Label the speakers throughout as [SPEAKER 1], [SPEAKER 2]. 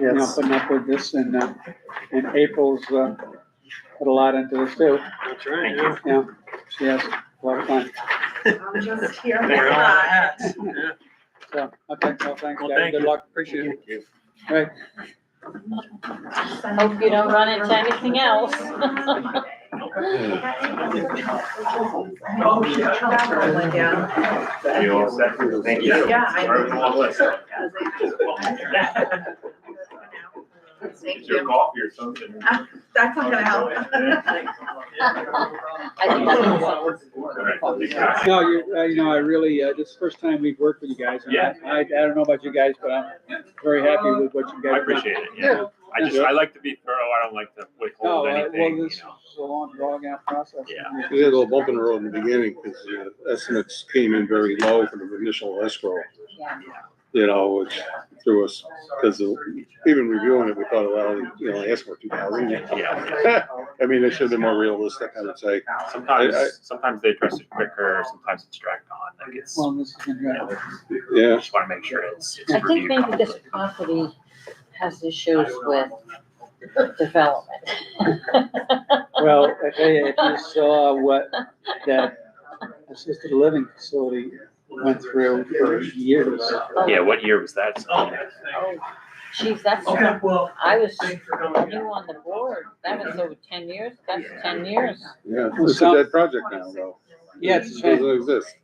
[SPEAKER 1] you know,
[SPEAKER 2] Yes.
[SPEAKER 1] putting up with this and, uh, and April's, uh, put a lot into this too.
[SPEAKER 2] That's right.
[SPEAKER 1] Yeah, she has a lot of fun.
[SPEAKER 3] I'm just here.
[SPEAKER 2] We're all hats. Yeah.
[SPEAKER 1] So, okay, well, thanks,
[SPEAKER 2] Well,
[SPEAKER 1] Gary.
[SPEAKER 2] thank
[SPEAKER 1] Good
[SPEAKER 2] you.
[SPEAKER 1] luck. Appreciate
[SPEAKER 2] Thank you.
[SPEAKER 4] Hope you don't run into anything else.
[SPEAKER 3] Oh, yeah.
[SPEAKER 5] You all set? Thank you.
[SPEAKER 3] Yeah, I-
[SPEAKER 5] Sorry, we're all late.
[SPEAKER 3] Thank
[SPEAKER 5] Get your
[SPEAKER 3] you.
[SPEAKER 5] coffee or something.
[SPEAKER 3] That's not gonna help.
[SPEAKER 5] All right.
[SPEAKER 1] No, you, uh, you know, I really, uh, this is the first time we've worked with you guys. and I-
[SPEAKER 5] Yeah.
[SPEAKER 1] I, I don't know about you guys, but I'm very happy with what you guys. have
[SPEAKER 5] I
[SPEAKER 1] done.
[SPEAKER 5] appreciate it, yeah. I just, I like to be thorough, I don't like to
[SPEAKER 1] No,
[SPEAKER 5] withhold
[SPEAKER 1] uh,
[SPEAKER 5] anything,
[SPEAKER 1] well,
[SPEAKER 5] you
[SPEAKER 1] this is
[SPEAKER 5] know.
[SPEAKER 1] a long, long out process.
[SPEAKER 5] Yeah.
[SPEAKER 6] We had a little bump in the road in the beginning because the estimates came in very low for the initial escrow. You know, which threw us, because even reviewing it, we thought, well, you only asked for two thousand.
[SPEAKER 5] Yeah,
[SPEAKER 6] I mean, they should have been more realistic, I would say.
[SPEAKER 5] yeah.
[SPEAKER 6] I- I-
[SPEAKER 5] Sometimes, sometimes they address it quicker, sometimes it's dragged on, like it's,
[SPEAKER 1] Well, this is,
[SPEAKER 5] you
[SPEAKER 1] yeah,
[SPEAKER 5] know,
[SPEAKER 6] Yeah.
[SPEAKER 5] just wanna make sure it's, it's
[SPEAKER 4] I think
[SPEAKER 5] reviewed
[SPEAKER 4] maybe this
[SPEAKER 5] properly.
[SPEAKER 4] property has issues with development.
[SPEAKER 1] well, I tell you, if you saw what that assisted living facility went through for years.
[SPEAKER 5] Yeah, what year was that?
[SPEAKER 4] Oh, Geez, that's,
[SPEAKER 7] Okay,
[SPEAKER 4] I
[SPEAKER 7] well,
[SPEAKER 4] was
[SPEAKER 7] thanks for coming.
[SPEAKER 4] new on the board. That was over ten years. That's ten years.
[SPEAKER 6] Yeah, it's a dead project now, though.
[SPEAKER 1] Yeah, it's a
[SPEAKER 6] It
[SPEAKER 1] shame.
[SPEAKER 6] Doesn't exist,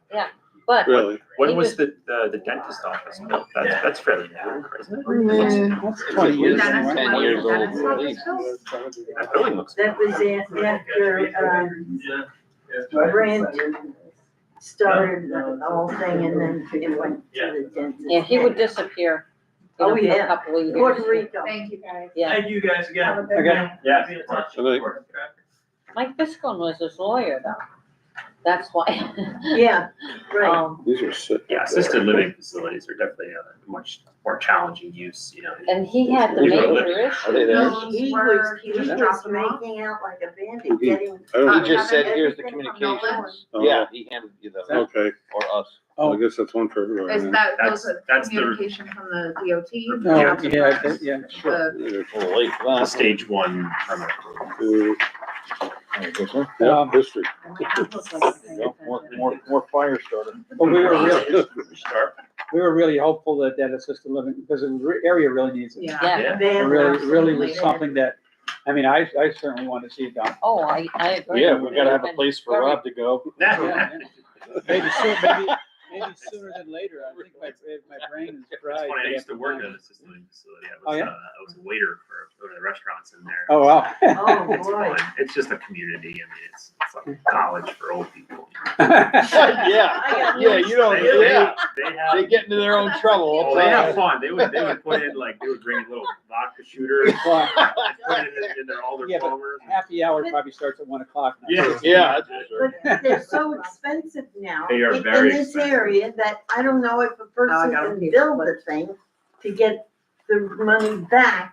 [SPEAKER 4] But
[SPEAKER 6] really.
[SPEAKER 5] When was the, the the dentist office built? That's, that's fairly new, isn't it?
[SPEAKER 1] That's twenty years.
[SPEAKER 3] Dennis,
[SPEAKER 1] ago, right?
[SPEAKER 3] Dennis,
[SPEAKER 8] years old,
[SPEAKER 3] Dennis,
[SPEAKER 8] at
[SPEAKER 5] That building looks.
[SPEAKER 9] That was a- after, um,
[SPEAKER 7] Yeah.
[SPEAKER 9] Brent started the whole thing and then it went to the dentist.
[SPEAKER 4] yeah, he would disappear, you know,
[SPEAKER 9] Oh,
[SPEAKER 4] for a
[SPEAKER 9] yeah.
[SPEAKER 4] couple of
[SPEAKER 9] Puerto
[SPEAKER 4] years.
[SPEAKER 9] Rico.
[SPEAKER 3] Thank you, guys.
[SPEAKER 4] Yeah,
[SPEAKER 7] Thank you guys
[SPEAKER 3] Have a
[SPEAKER 7] again.
[SPEAKER 3] good
[SPEAKER 1] Okay.
[SPEAKER 3] night.
[SPEAKER 7] Yeah, be in touch.
[SPEAKER 6] Good night.
[SPEAKER 4] Mike Biscone was his lawyer though. That's why.
[SPEAKER 9] Yeah, right.
[SPEAKER 4] Um,
[SPEAKER 6] These are sick.
[SPEAKER 5] Yeah, assisted living facilities are definitely a much more challenging use, you know.
[SPEAKER 4] and he had the
[SPEAKER 5] You know,
[SPEAKER 4] major issue.
[SPEAKER 8] Are they there?
[SPEAKER 3] No.
[SPEAKER 9] He was, he was making out like a bandit, getting.
[SPEAKER 6] I don't-
[SPEAKER 8] He just said, here's the
[SPEAKER 9] Everything from
[SPEAKER 8] communications.
[SPEAKER 6] oh,
[SPEAKER 8] Uh, Yeah, he handed you the,
[SPEAKER 6] Okay,
[SPEAKER 8] or us.
[SPEAKER 6] I guess that's one for
[SPEAKER 3] Is
[SPEAKER 6] everyone.
[SPEAKER 3] that,
[SPEAKER 5] That's-
[SPEAKER 3] those are
[SPEAKER 5] that's the-
[SPEAKER 3] communication from the DOT?
[SPEAKER 1] No, Oh, yeah, I think- yeah,
[SPEAKER 3] The-
[SPEAKER 6] Yeah.
[SPEAKER 8] Holy,
[SPEAKER 5] The
[SPEAKER 8] well,
[SPEAKER 5] stage one permit approval.
[SPEAKER 1] Um,
[SPEAKER 6] Yeah, history.
[SPEAKER 8] more, more, more fire starter.
[SPEAKER 1] but we were really,
[SPEAKER 5] Sure.
[SPEAKER 1] we were really hopeful that that assisted living, because the re- area really needs it.
[SPEAKER 3] Yeah.
[SPEAKER 4] Yeah,
[SPEAKER 5] Yeah.
[SPEAKER 1] It
[SPEAKER 9] Bandit.
[SPEAKER 1] really, really was something that, I mean, I, I certainly want to see it done.
[SPEAKER 4] oh, I, I agree.
[SPEAKER 8] Yeah, we gotta have a place for Rob to go.
[SPEAKER 1] Yeah, Maybe soon, maybe, maybe sooner than later, I think my, my brain is fried.
[SPEAKER 5] That's when I used to work at an assisted living facility. I
[SPEAKER 1] Oh,
[SPEAKER 5] was,
[SPEAKER 1] yeah?
[SPEAKER 5] uh, I was a waiter for, one of the restaurants in there.
[SPEAKER 1] Oh, wow.
[SPEAKER 9] Oh,
[SPEAKER 5] It's
[SPEAKER 9] boy.
[SPEAKER 5] fun. It's just a community. I mean, it's, it's like college for old people.
[SPEAKER 8] Yeah, yeah, you
[SPEAKER 5] They,
[SPEAKER 8] don't,
[SPEAKER 5] they,
[SPEAKER 8] yeah,
[SPEAKER 5] they have.
[SPEAKER 8] they get into their own trouble all
[SPEAKER 5] Oh,
[SPEAKER 8] the
[SPEAKER 5] they
[SPEAKER 8] time.
[SPEAKER 5] have fun. They would, they would put in like, they would bring in little vodka shooters,
[SPEAKER 1] Well,
[SPEAKER 5] put it in, in their, all their
[SPEAKER 1] Yeah, but-
[SPEAKER 5] plumbers.
[SPEAKER 1] Happy hour probably starts at one o'clock. now.
[SPEAKER 5] Yeah.
[SPEAKER 8] Yeah.
[SPEAKER 9] But they're so expensive now.
[SPEAKER 5] They are
[SPEAKER 9] in-
[SPEAKER 5] very
[SPEAKER 9] In this
[SPEAKER 5] expensive.
[SPEAKER 9] area that I don't know if a person
[SPEAKER 3] gotta
[SPEAKER 9] can
[SPEAKER 3] be-
[SPEAKER 9] build the thing to get the money back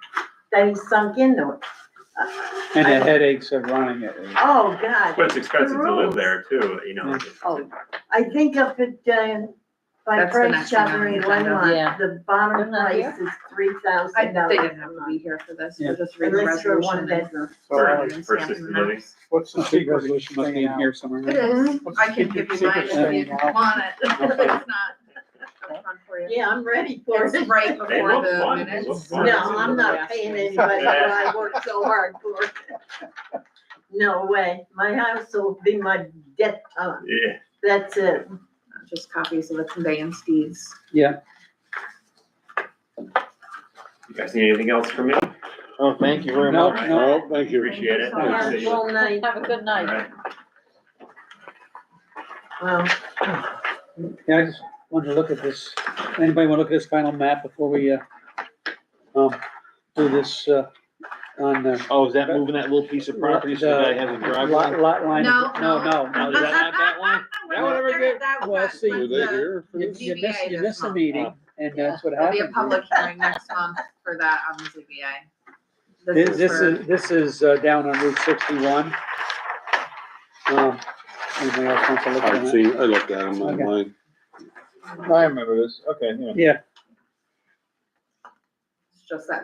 [SPEAKER 9] that he sunk into it. Uh,
[SPEAKER 1] And the headaches of running it.
[SPEAKER 9] Oh, God.
[SPEAKER 5] But it's expensive to live there too, you know.
[SPEAKER 4] Oh.
[SPEAKER 9] I think up at, uh, by
[SPEAKER 3] That's the
[SPEAKER 9] Price
[SPEAKER 3] next thing on
[SPEAKER 9] Chopper in
[SPEAKER 3] the agenda.
[SPEAKER 4] Yeah.
[SPEAKER 9] Lemont, the bottom
[SPEAKER 4] They're not
[SPEAKER 9] price is three
[SPEAKER 3] I,
[SPEAKER 9] thousand
[SPEAKER 3] they
[SPEAKER 9] dollars.
[SPEAKER 3] didn't have to be here for this,
[SPEAKER 1] Yeah.
[SPEAKER 3] we're just reading the
[SPEAKER 9] Unless you're one
[SPEAKER 3] resolution. and-
[SPEAKER 9] bedroom.
[SPEAKER 5] For,
[SPEAKER 3] Yeah.
[SPEAKER 5] for assisted living.
[SPEAKER 1] What's the secret resolution thing in here somewhere?
[SPEAKER 3] It is,
[SPEAKER 1] What's the
[SPEAKER 3] I can give
[SPEAKER 1] secret-
[SPEAKER 3] you mine if you
[SPEAKER 1] secret thing?
[SPEAKER 3] want it, it's not, it's not for you.
[SPEAKER 9] Yeah, I'm ready for it.
[SPEAKER 3] It's right
[SPEAKER 5] They
[SPEAKER 3] before
[SPEAKER 5] look fun.
[SPEAKER 3] the
[SPEAKER 5] They look
[SPEAKER 3] minutes.
[SPEAKER 5] fun.
[SPEAKER 9] No, I'm not paying anybody, but I work so hard for it. No way, my house will be my death town,
[SPEAKER 5] Yeah.
[SPEAKER 9] that's it.
[SPEAKER 3] Just copies of the conveyance deeds.
[SPEAKER 1] Yeah,
[SPEAKER 5] You guys need anything else from me?
[SPEAKER 8] Oh, thank you
[SPEAKER 1] no,
[SPEAKER 8] very much.
[SPEAKER 1] no.
[SPEAKER 6] Oh, thank you.
[SPEAKER 5] Appreciate it.
[SPEAKER 3] Thank you so
[SPEAKER 9] much.
[SPEAKER 5] See you.
[SPEAKER 9] Well, night.
[SPEAKER 4] Have a good
[SPEAKER 5] All
[SPEAKER 4] night.
[SPEAKER 5] right.
[SPEAKER 9] Well,
[SPEAKER 1] Yeah, I just wanted to look at this. Anybody want to look at this final map before we, uh, um, do this, uh, on the
[SPEAKER 8] Oh, is that moving that little piece of property so that I have a
[SPEAKER 1] lot,
[SPEAKER 8] driveway?
[SPEAKER 1] lot line?
[SPEAKER 3] No,
[SPEAKER 1] No, no,
[SPEAKER 8] Now,
[SPEAKER 1] no.
[SPEAKER 8] Is that not that one?
[SPEAKER 1] That one ever get-
[SPEAKER 3] That
[SPEAKER 1] well,
[SPEAKER 3] was
[SPEAKER 1] see,
[SPEAKER 3] when
[SPEAKER 6] Were they
[SPEAKER 3] the-
[SPEAKER 6] here?
[SPEAKER 1] You you miss, you miss a
[SPEAKER 8] Oh.
[SPEAKER 1] meeting and that's what
[SPEAKER 3] uh, There'll
[SPEAKER 1] happens.
[SPEAKER 3] be a public hearing next month for that on the ZBA.
[SPEAKER 1] This, this
[SPEAKER 3] for-
[SPEAKER 1] is, this is uh, down on Route sixty-one. Um, Anybody else wants to look at
[SPEAKER 6] I've
[SPEAKER 1] that?
[SPEAKER 6] seen, I looked at them online.
[SPEAKER 8] I remember this, okay, yeah.
[SPEAKER 1] Yeah,
[SPEAKER 3] It's just that